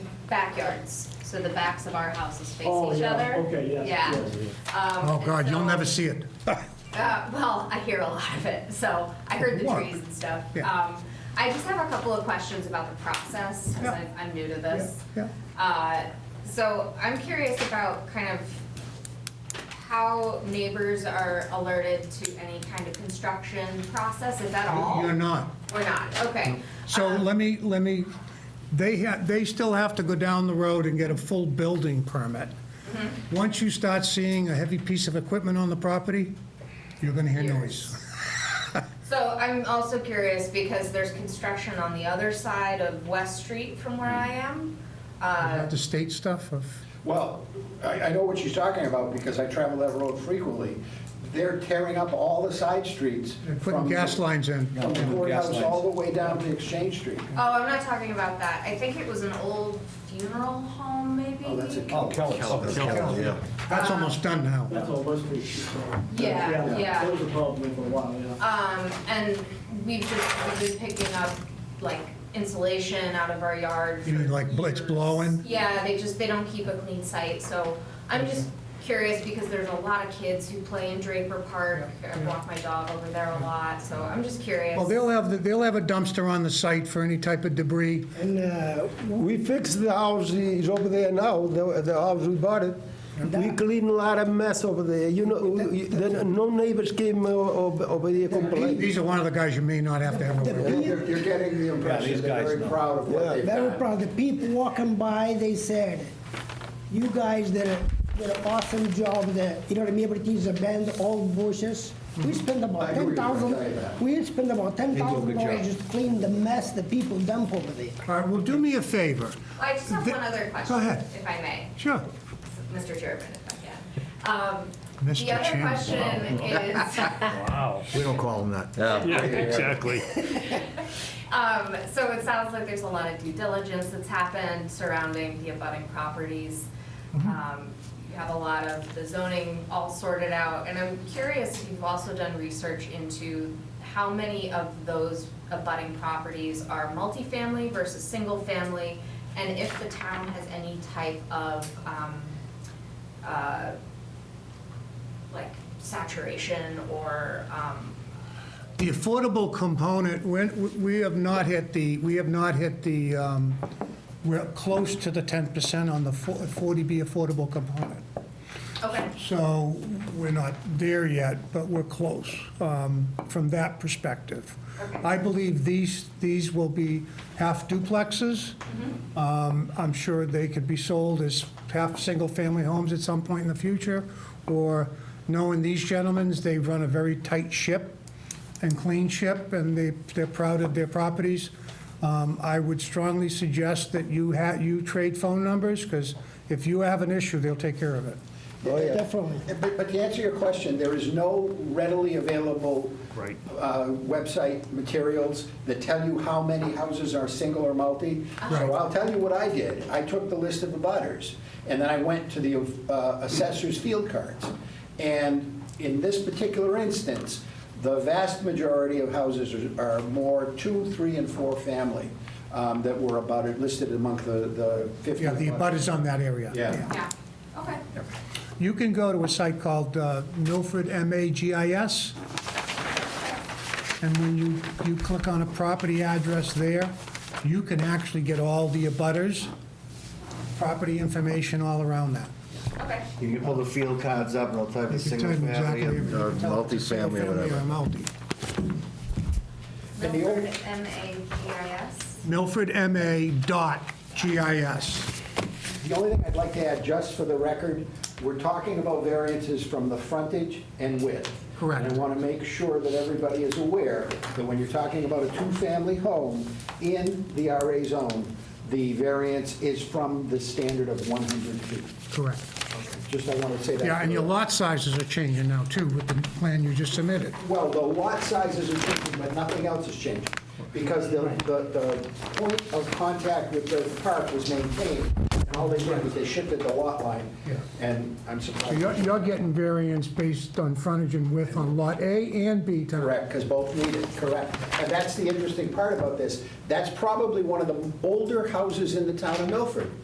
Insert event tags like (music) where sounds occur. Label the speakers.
Speaker 1: backyards, so the backs of our houses face
Speaker 2: Oh,
Speaker 1: each
Speaker 2: yeah,
Speaker 1: other.
Speaker 2: okay, yes,
Speaker 1: Yeah.
Speaker 2: yes,
Speaker 1: Um,
Speaker 3: Oh,
Speaker 1: and
Speaker 3: God, you'll
Speaker 1: so-
Speaker 3: never
Speaker 1: (laughs)
Speaker 3: see it.
Speaker 1: Uh, well, I hear a lot of it, so I heard the
Speaker 3: What?
Speaker 1: trees and stuff.
Speaker 3: Yeah.
Speaker 1: Um, I just have a couple of questions about the process,
Speaker 3: Yeah.
Speaker 1: because I'm new to this.
Speaker 3: Yeah,
Speaker 1: Uh, so I'm curious about kind of how neighbors are alerted to any kind of construction process, if at all?
Speaker 3: You're not.
Speaker 1: We're not, okay.
Speaker 3: So
Speaker 1: Um,
Speaker 3: let me, let me, they have, they still have to go down the road and get a full building permit.
Speaker 1: Mm-hmm.
Speaker 3: Once you start seeing a heavy piece of equipment on the property, you're gonna hear noise.
Speaker 1: So I'm also curious because there's construction on the other side of West Street from where I am. Uh,
Speaker 3: The state stuff of,
Speaker 2: Well, I, I know what she's talking about because I travel that road frequently. They're tearing up all the side streets.
Speaker 3: they're
Speaker 2: from
Speaker 3: putting
Speaker 2: the-
Speaker 3: gas lines in.
Speaker 2: From the courthouse all the way down to Exchange Street.
Speaker 1: Oh, I'm not talking about that. I think it was an old funeral home, maybe?
Speaker 2: Oh, that's a.
Speaker 3: Yeah. That's almost done now.
Speaker 4: That's all West Street. so-
Speaker 1: Yeah, yeah.
Speaker 4: That was a problem for a while, yeah.
Speaker 1: Um, and we've just we've been picking up like insulation out of our yard.
Speaker 3: You mean
Speaker 1: for
Speaker 3: like bl- it's
Speaker 1: years.
Speaker 3: blowing?
Speaker 1: Yeah, they just, they don't keep a clean site, so I'm just curious because there's a lot of kids who play in Draper Park. I walk my dog over there a lot, so I'm just curious.
Speaker 3: Well, they'll have, the- they'll have a dumpster on the site for any type of debris.
Speaker 5: And uh, we fixed the house, it's over there now, the the house we bought it. We cleaned a lot of mess over there, you know, we- then no neighbors came o- over over here complaining.
Speaker 3: These are one of the guys you may not have to have a word with.
Speaker 2: You're you're getting the impression they're very proud of what
Speaker 5: Yeah.
Speaker 2: they've
Speaker 6: Very
Speaker 2: done.
Speaker 6: proud. The people walking by, they said, you guys did, a, did an awesome job there. You know what I mean? Everything's a band, all bushes. We spent
Speaker 2: Hmm. I
Speaker 6: about
Speaker 2: agree with
Speaker 6: ten
Speaker 2: you, I'll
Speaker 6: thousand,
Speaker 2: tell you that.
Speaker 6: we spent about ten thousand dollars just to clean the mess the people dump over there.
Speaker 3: All right, well, do me a favor.
Speaker 1: I just have
Speaker 3: the-
Speaker 1: one other question,
Speaker 3: Go ahead.
Speaker 1: if I may.
Speaker 3: Sure.
Speaker 1: Mr. Chairman, if I can. Um,
Speaker 3: Mr.
Speaker 1: The other
Speaker 3: Chairman.
Speaker 1: question is,
Speaker 7: We don't call them that.
Speaker 8: Yeah, exactly.
Speaker 1: um, so it sounds like there's a lot of due diligence that's happened surrounding the abutting properties. Um, You have a lot of the zoning all sorted out, and I'm curious if you've also done research into how many of those abutting properties are multifamily versus single-family, and if the town has any type of um, uh, like saturation or um,
Speaker 3: The affordable component, we're- we have not hit the, we have not hit the, um, we're close to the 10% on the fo- 40B affordable component.
Speaker 1: okay.
Speaker 3: So we're not there yet, but we're close um, from that perspective. I believe these, these will be half duplexes. Um, I'm sure they could be sold as half single-family homes at some point in the future, or knowing these gentlemen, they run a very tight ship and clean ship, and they, they're proud of their properties. Um, I would strongly suggest that you ha, you trade phone numbers, because if you have an issue, they'll take care of it.
Speaker 2: Oh, yeah.
Speaker 6: Definitely.
Speaker 2: But, but to answer your question, there is no readily available.
Speaker 8: Right.
Speaker 2: uh, Website materials that tell you how many houses are single or multi. So I'll tell you what I did. I took the list of the butters, and then I went to the uh, assessor's field cards. And in this particular instance, the vast majority of houses are- are more two, three, and four family um, that were abutted, listed among the the 50.
Speaker 3: Yeah, the abutters on that area.
Speaker 2: Yeah.
Speaker 1: Yeah, okay.
Speaker 3: You can go to a site called uh, Milford MAGIS, and when you, you click on a property address there, you can actually get all the abutters, property information all around that.
Speaker 1: Okay,
Speaker 7: You can pull the field cards up and they'll type in
Speaker 3: You can tell
Speaker 7: single
Speaker 3: them
Speaker 7: family.
Speaker 3: exactly- you
Speaker 7: and- uh,
Speaker 3: can tell if it's
Speaker 7: multifamily or
Speaker 3: single-family
Speaker 7: whatever.
Speaker 3: multi.
Speaker 2: And the
Speaker 1: Milford,
Speaker 2: old-
Speaker 1: M-A-G-I-S.
Speaker 3: Milford MA dot GIS.
Speaker 2: The only thing I'd like to add, just for the record, we're talking about variances from the frontage and width.
Speaker 3: Correct.
Speaker 2: And I want to make sure that everybody is aware that when you're talking about a two-family home in the RA zone, the variance is from the standard of 100 feet.
Speaker 3: Correct.
Speaker 2: Just I want to say that.
Speaker 3: Yeah, and your lot sizes are changing now, too, with the plan you just submitted.
Speaker 2: Well, the lot sizes are changing, but nothing else is changing, because the, the, the point of contact with the park was maintained, and all they did was they shifted the lot line,
Speaker 3: Yeah.
Speaker 2: and I'm
Speaker 3: So you're,
Speaker 2: surprised.
Speaker 3: you're getting variance based on frontage and width on Lot A and B tonight.
Speaker 2: Correct, because both need it, correct. And that's the interesting part about this, that's probably one of the older houses in the town of Milford.